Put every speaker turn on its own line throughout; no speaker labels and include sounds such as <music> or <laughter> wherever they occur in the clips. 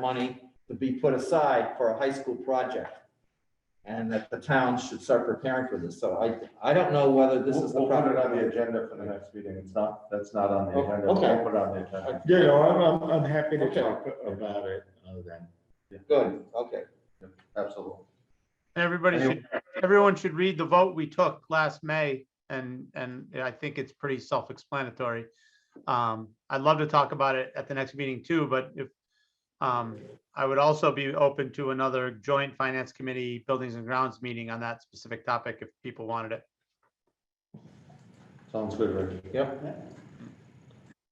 money to be put aside for a high school project. And that the town should start preparing for this. So I, I don't know whether this is the
We'll put
proper.
it on the agenda for the next meeting. It's not, that's not on the
Oh,
agenda. We'll
okay.
put it on the agenda.
Yeah, no, I'm, I'm, I'm happy to
Okay.
talk about it uh, then.
Good, okay.
Absolutely.
Everybody
Any-
should, everyone should read the vote we took last May and, and I think it's pretty self-explanatory. Um, I'd love to talk about it at the next meeting too, but if, um, I would also be open to another joint finance committee buildings and grounds meeting on that specific topic if people wanted it.
Sounds good, Ricky.
Yep.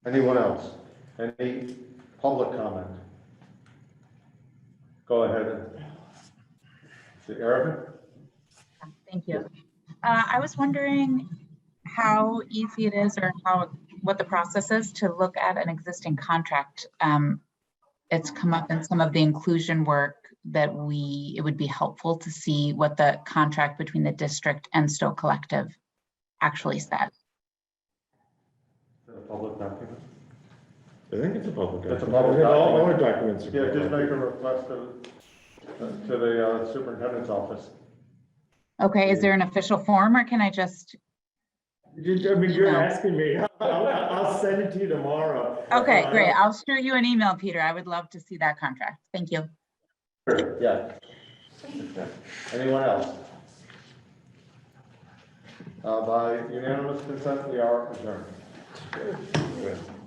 Anyone else? Any public comment? Go ahead. Is it Erica?
Thank you. Uh, I was wondering how easy it is or how, what the process is to look at an existing contract. Um, It's come up in some of the inclusion work that we, it would be helpful to see what the contract between the district and Stowe Collective actually said.
Is it a public document?
I think it's a public.
It's a
document.
public
I think All, all
document.
our documents. are
Yeah, just make
public.
a request to, to the uh, superintendent's office.
Okay, is there an official form or can I just,
You- I mean, you're
email.
asking me. <laughs> I'll, I'll I'll send it to you tomorrow.
okay,
Uh,
great. I'll shoot you an email, Peter. I would love to see that contract. Thank you.
Sure, yeah. Anyone else? Uh, by unanimous consent, we are adjourned.